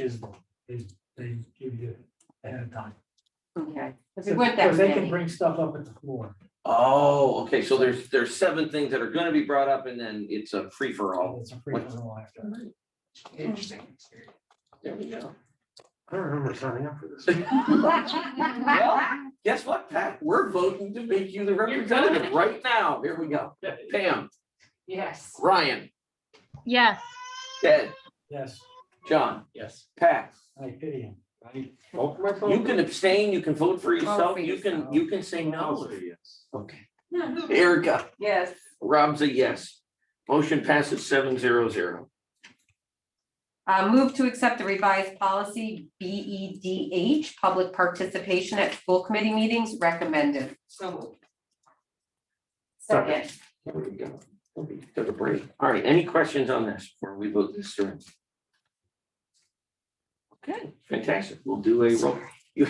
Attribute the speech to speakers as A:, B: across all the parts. A: is, is they give you ahead of time.
B: Okay, if
A: So
B: we went that
A: so They can
B: many,
A: bring stuff up at the floor.
C: Oh, okay, so there's, there's seven things that are gonna be brought up and then it's a free for all.
A: It's a free for all after. Interesting.
C: There we go.
D: I don't remember signing up for this.
C: Well, Guess what, Pat? We're voting to make you the representative right now. Here we go. Pam,
B: yes.
C: Ryan,
E: Yes,
C: Ted,
A: Yes,
C: John,
F: Yes.
C: Pat.
A: I pity him.
D: Vote for myself?
C: You can abstain, you can vote for yourself,
B: for
C: you can,
B: yourself.
C: you can say
D: I'll
C: no.
D: say yes.
C: Okay. Erica,
B: Yes,
C: Rob's a yes. Motion passes seven zero zero.
B: uh, move to accept the revised policy B E D H, public participation at school committee meetings recommended. So moved. Second,
C: There we go. We'll be- Took a break. All right, any questions on this before we vote this through? Okay, fantastic. We'll do a roll. You-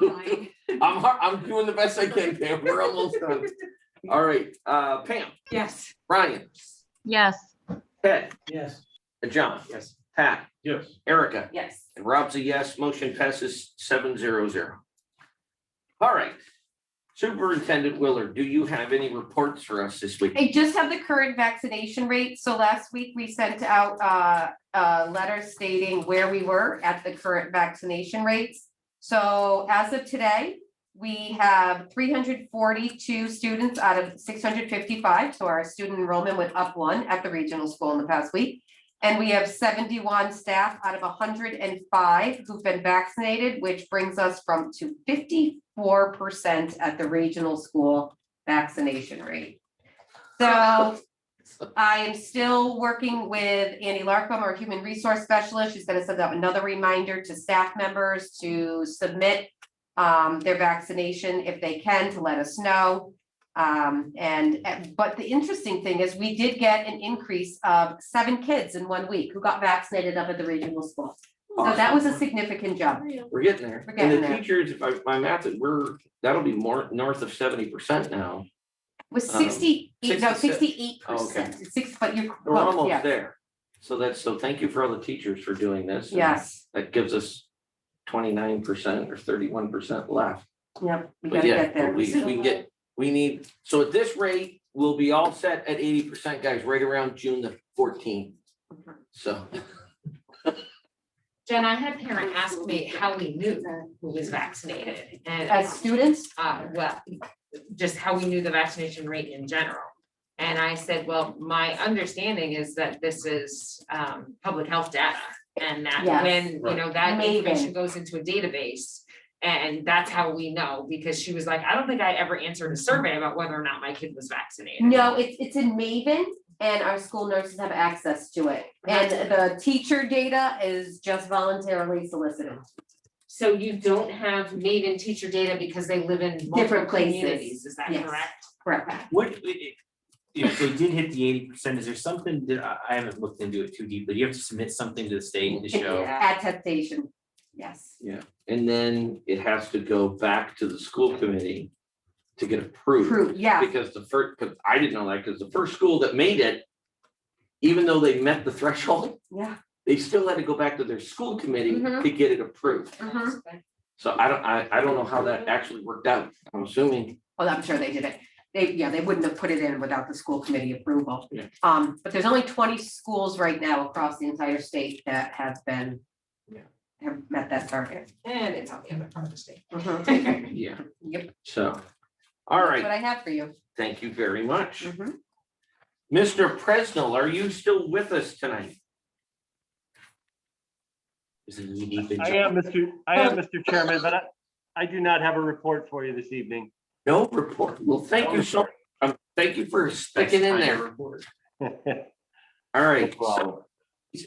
C: I'm, har- I'm doing the best I can, Pam. We're almost done. All right, uh, Pam,
B: yes.
C: Ryan,
E: yes,
C: Ted,
A: Yes,
C: uh, John,
F: Yes.
C: Pat,
D: Yes.
C: Erica.
B: Yes.
C: And Rob's a yes, motion passes seven zero zero. All right. Superintendent Willard, do you have any reports for us this week?
B: I just have the current vaccination rate. So last week we sent out uh, a letter stating where we were at the current vaccination rates. So as of today, we have three hundred forty-two students out of six hundred fifty-five. So our student enrollment went up one at the regional school in the past week. And we have seventy-one staff out of hundred and five who've been vaccinated, which brings us from to fifty-four percent at the regional school vaccination rate. So I am still working with Annie Larkham, our human resource specialist. She's gonna send out another reminder to staff members to submit um, their vaccination if they can to let us know. Um, and, and- but the interesting thing is we did get an increase of seven kids in one week who got vaccinated up at the regional school. So that was a significant jump.
C: We're getting there.
B: We're
C: And
B: getting
C: the
B: there.
C: teachers, if I, my math, is we're, that'll be more, north of seventy percent now.
B: Was
C: Um,
B: sixty-eight, no,
C: 66.
B: sixty-eight
C: Oh, okay.
B: percent, six, but you're
C: We're
B: close,
C: almost
B: yeah,
C: there. So that's, so thank you for all the teachers for doing this.
B: yes,
C: That gives us twenty-nine percent or thirty-one percent left.
B: yep, we
C: But
B: gotta
C: yeah,
B: get there.
C: we, we can get, we need, so at this rate, we'll be all set at eighty percent, guys, right around June the fourteenth. So,
G: Jen, I had a parent ask me how we knew who was vaccinated and,
B: As students,
G: uh, well, just how we knew the vaccination rate in general. And I said, well, my understanding is that this is, um, public health data and that
B: Yes.
G: when, you know, that
B: Amazing.
G: information goes into a database. And that's how we know, because she was like, I don't think I ever answered a survey about whether or not my kid was vaccinated.
B: no, it's, it's in Maven and our school nurses have access to it. And the teacher data is just voluntarily solicited.
G: So you don't have maiden teacher data because they live in multiple
B: Different places.
G: communities, is that
B: Yes.
G: correct?
B: Correct.
F: What, i- i- if they did hit the eighty percent, is there something that I, I haven't looked into it too deeply? You have to submit something to the state to
B: It's
F: show.
B: Attestation, yes.
C: and then it has to go back to the school committee to get approved.
B: True, yeah,
C: Because the first, because I didn't know that, because the first school that made it, even though they met the threshold,
B: yeah.
C: they still had to go back to their school committee
B: Mhm.
C: to get it approved.
B: Mhm.
C: So I don't, I, I don't know how that actually worked out. I'm assuming
B: Well, Oh, I'm sure they did it. They, yeah, they wouldn't have put it in without the school committee approval.
C: Yeah.
B: Um, but there's only twenty schools right now across the entire state that have been
C: Yeah.
B: have met that target.
G: And it's on the other part of the state.
B: Mhm.
C: Yeah,
B: Yep.
C: so, all
B: That's What
C: right,
B: I have for you.
C: thank you very much.
B: Mhm.
C: Mr. Presnell, are you still with us tonight?
F: Is it unique?
H: I am, Mr. I am, Mr. Chairman, but I, I do not have a report for you this evening.
C: No report. Well, thank you so, um, thank you for sticking in there. All right, so,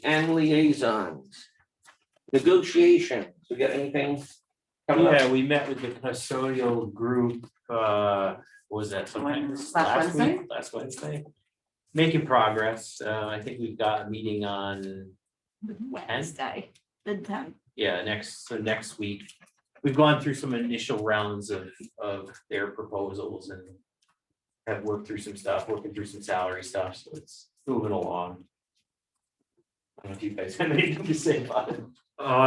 C: and liaisons. Negotiations, we got anything coming up?
F: Yeah, we met with the custodial group, uh, what was that
B: When-
F: sometime
B: last
F: last week,
B: Wednesday?
F: last Wednesday? Making progress. Uh, I think we've got a meeting on
E: Wednesday, the tenth.
F: Yeah, next, so next week, we've gone through some initial rounds of, of their proposals and have worked through some stuff, working through some salary stuff, so it's moving along. I don't know if you guys have anything to say about it.
D: Uh,